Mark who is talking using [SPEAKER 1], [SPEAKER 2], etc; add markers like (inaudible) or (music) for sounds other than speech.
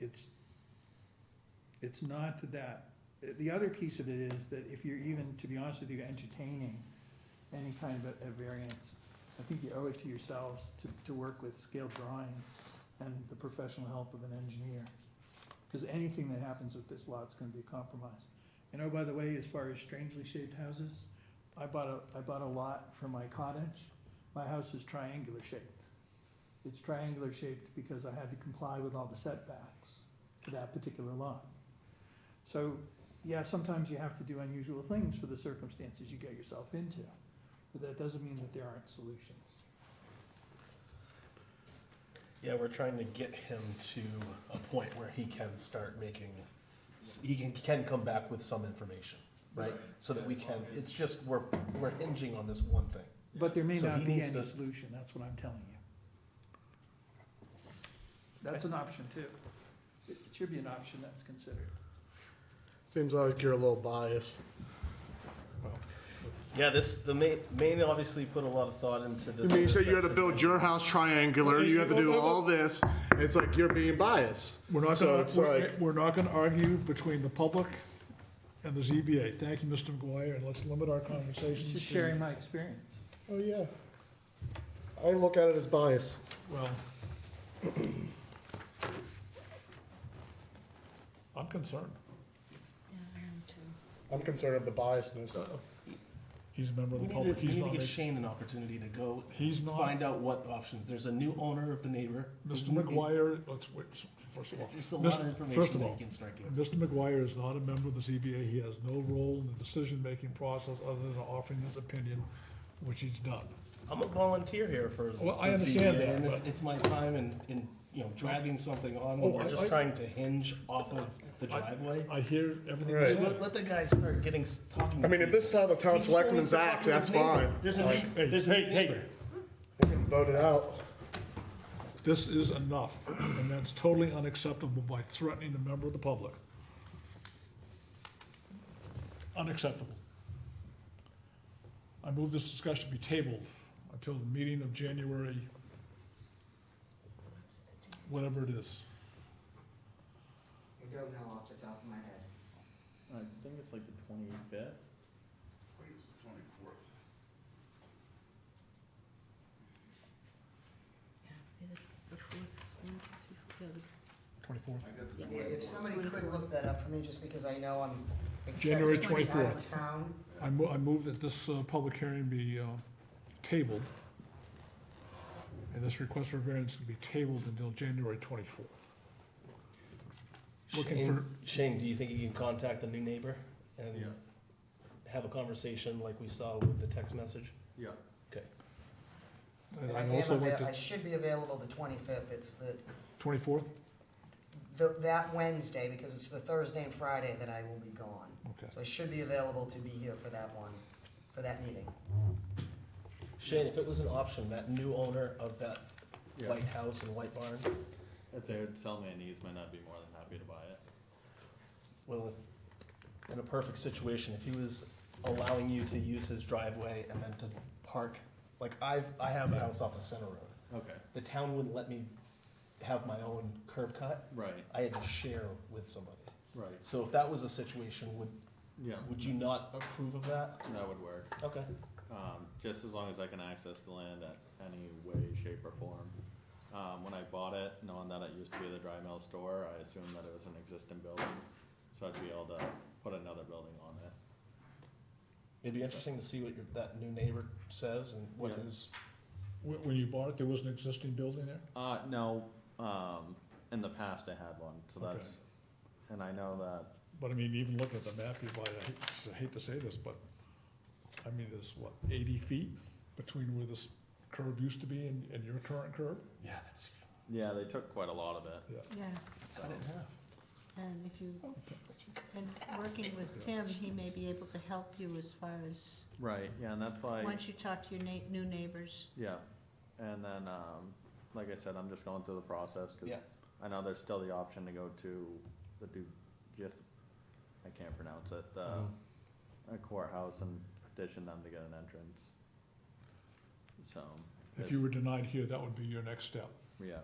[SPEAKER 1] it's, it's not that, the other piece of it is that if you're even, to be honest with you, entertaining any kind of a- a variance, I think you owe it to yourselves to, to work with scaled drawings and the professional help of an engineer. Cause anything that happens with this lot's gonna be a compromise. And oh, by the way, as far as strangely shaped houses, I bought a, I bought a lot for my cottage. My house is triangular shaped. It's triangular shaped because I had to comply with all the setbacks to that particular lot. So, yeah, sometimes you have to do unusual things for the circumstances you get yourself into, but that doesn't mean that there aren't solutions.
[SPEAKER 2] Yeah, we're trying to get him to a point where he can start making, he can, can come back with some information, right?
[SPEAKER 3] Right.
[SPEAKER 2] So that we can, it's just, we're, we're hinging on this one thing.
[SPEAKER 1] But there may
[SPEAKER 2] So
[SPEAKER 1] not
[SPEAKER 2] he
[SPEAKER 1] be
[SPEAKER 2] needs
[SPEAKER 1] any
[SPEAKER 2] to-
[SPEAKER 1] solution, that's what I'm telling you. That's an option too. It should be an option that's considered.
[SPEAKER 4] Seems like you're a little biased.
[SPEAKER 3] Yeah, this, the main, main obviously put a lot of thought into
[SPEAKER 4] I
[SPEAKER 3] this.
[SPEAKER 4] mean, you said you had to
[SPEAKER 3] intersection.
[SPEAKER 4] build your house triangular, you have to do all this. It's like you're being biased.
[SPEAKER 5] We're not
[SPEAKER 4] So
[SPEAKER 5] gonna,
[SPEAKER 4] it's
[SPEAKER 5] we're,
[SPEAKER 4] like-
[SPEAKER 5] we're not gonna argue between the public and the ZBA. Thank you, Mr. McGuire, and let's limit our
[SPEAKER 1] It's
[SPEAKER 5] conversations to.
[SPEAKER 1] just sharing my experience.
[SPEAKER 4] Oh, yeah. I look at it as bias.
[SPEAKER 5] Well. I'm concerned.
[SPEAKER 6] Yeah, I am too.
[SPEAKER 4] I'm concerned of the biasness.
[SPEAKER 5] He's a member of
[SPEAKER 2] We need
[SPEAKER 5] the
[SPEAKER 2] to,
[SPEAKER 5] public.
[SPEAKER 2] we need
[SPEAKER 5] He's
[SPEAKER 2] to
[SPEAKER 5] not,
[SPEAKER 2] give
[SPEAKER 5] making-
[SPEAKER 2] Shane an opportunity to go
[SPEAKER 5] he's not,
[SPEAKER 2] find out what options. There's a new owner of the neighbor.
[SPEAKER 5] Mr. McGuire, let's wait, first of all.
[SPEAKER 2] (laughs) There's a lot
[SPEAKER 5] Mr.
[SPEAKER 2] of
[SPEAKER 5] First
[SPEAKER 2] information
[SPEAKER 5] of
[SPEAKER 2] that
[SPEAKER 5] all,
[SPEAKER 2] he can start giving.
[SPEAKER 5] Mr. McGuire is not a member of the ZBA. He has no role in the decision-making process other than offering his opinion, which he's done.
[SPEAKER 2] I'm a volunteer here for.
[SPEAKER 5] Well, I
[SPEAKER 2] the
[SPEAKER 5] understand
[SPEAKER 2] ZBA,
[SPEAKER 5] that,
[SPEAKER 2] and it's-
[SPEAKER 5] but-
[SPEAKER 2] It's my time and, and, you know, dragging something on
[SPEAKER 5] Oh,
[SPEAKER 2] when we're
[SPEAKER 5] I-
[SPEAKER 2] just
[SPEAKER 5] I-
[SPEAKER 2] trying to hinge off of the
[SPEAKER 5] I-
[SPEAKER 2] driveway.
[SPEAKER 5] I hear everything you're
[SPEAKER 4] Right.
[SPEAKER 2] Let,
[SPEAKER 5] saying.
[SPEAKER 2] let the guy start getting, s- talking.
[SPEAKER 4] I mean, if this is how the town selectmen's act, that's fine.
[SPEAKER 2] There's a, neigh-
[SPEAKER 5] Hey,
[SPEAKER 2] there's a.
[SPEAKER 5] hey, hey.
[SPEAKER 2] neighbor.
[SPEAKER 4] They can vote it out.
[SPEAKER 5] This is enough, and that's totally unacceptable by threatening a member of the public. Unacceptable. I move this discussion be tabled until the meeting of January, whatever it is.
[SPEAKER 7] I don't know off the top of my head.
[SPEAKER 3] I think it's like the twenty-fifth.
[SPEAKER 6] Yeah, the fourth, one, two, three, yeah,
[SPEAKER 5] Twenty-fourth.
[SPEAKER 7] If somebody could look that up for me, just because I know I'm
[SPEAKER 5] January
[SPEAKER 7] expected to be out of
[SPEAKER 5] 24th.
[SPEAKER 7] town.
[SPEAKER 5] I mo- I move that this, uh, public hearing be, uh, tabled, and this request for variance be tabled until January twenty-fourth. Looking
[SPEAKER 2] Shane-
[SPEAKER 5] for-
[SPEAKER 2] Shane, do you think you can contact the new neighbor and have a conversation like we saw with the text message?
[SPEAKER 3] Yeah.
[SPEAKER 2] Okay.
[SPEAKER 5] And
[SPEAKER 7] I
[SPEAKER 5] I'd
[SPEAKER 7] am
[SPEAKER 5] also like
[SPEAKER 7] avail- I
[SPEAKER 5] to,
[SPEAKER 7] should be available the twenty-fifth, it's the,
[SPEAKER 5] twenty-fourth?
[SPEAKER 7] the, that Wednesday, because it's the Thursday and Friday that I will be gone.
[SPEAKER 5] Okay.
[SPEAKER 7] So I should be available to be here for that one, for that meeting.
[SPEAKER 2] Shane, if it was an option, that new owner of that
[SPEAKER 3] Yeah.
[SPEAKER 2] white house and white barn,
[SPEAKER 3] If they would sell me an easement, I'd be more than happy to buy it.
[SPEAKER 2] well, if, in a perfect situation, if he was allowing you to use his driveway and then to park, like I've, I have a house off of Center Road.
[SPEAKER 3] Okay,
[SPEAKER 2] The town wouldn't let me have my own curb cut.
[SPEAKER 3] right,
[SPEAKER 2] I had to share with somebody.
[SPEAKER 3] right,
[SPEAKER 2] So if that was a situation, would,
[SPEAKER 3] yeah,
[SPEAKER 2] would you not approve of that?
[SPEAKER 3] that would work,
[SPEAKER 2] Okay.
[SPEAKER 3] um, just as long as I can access the land at any way, shape or form. Um, when I bought it, knowing that it used to be the dry mill store, I assumed that it was an existing building, so I'd be able to put another building on it.
[SPEAKER 2] It'd be interesting to see what your, that new neighbor says and what
[SPEAKER 3] Yeah.
[SPEAKER 2] is,
[SPEAKER 5] When, when you bought it, there was an existing building there?
[SPEAKER 3] Uh, no, um, in the past I had one, so
[SPEAKER 5] Okay.
[SPEAKER 3] that's, and I know that,
[SPEAKER 5] But I mean, even looking at the map, you might, I hate- I hate to say this, but, I mean, there's what, eighty feet between where this curb used to be and, and your current curb?
[SPEAKER 2] yeah, that's
[SPEAKER 3] yeah, they took quite a lot of it,
[SPEAKER 6] Yeah,
[SPEAKER 3] so.
[SPEAKER 2] cut in half.
[SPEAKER 6] and if you, and working with Tim, he may be able to help you as far as,
[SPEAKER 3] Right, yeah, and that's why,
[SPEAKER 6] once you talk to your na- new neighbors.
[SPEAKER 3] yeah, and then, um, like I said, I'm just going through the process, cause
[SPEAKER 2] Yeah.
[SPEAKER 3] I know there's still the option to go to the Du, just, I can't pronounce it, the, a courthouse and petition them to get an entrance. So,
[SPEAKER 5] If you were denied here, that would be your next step.
[SPEAKER 3] yeah,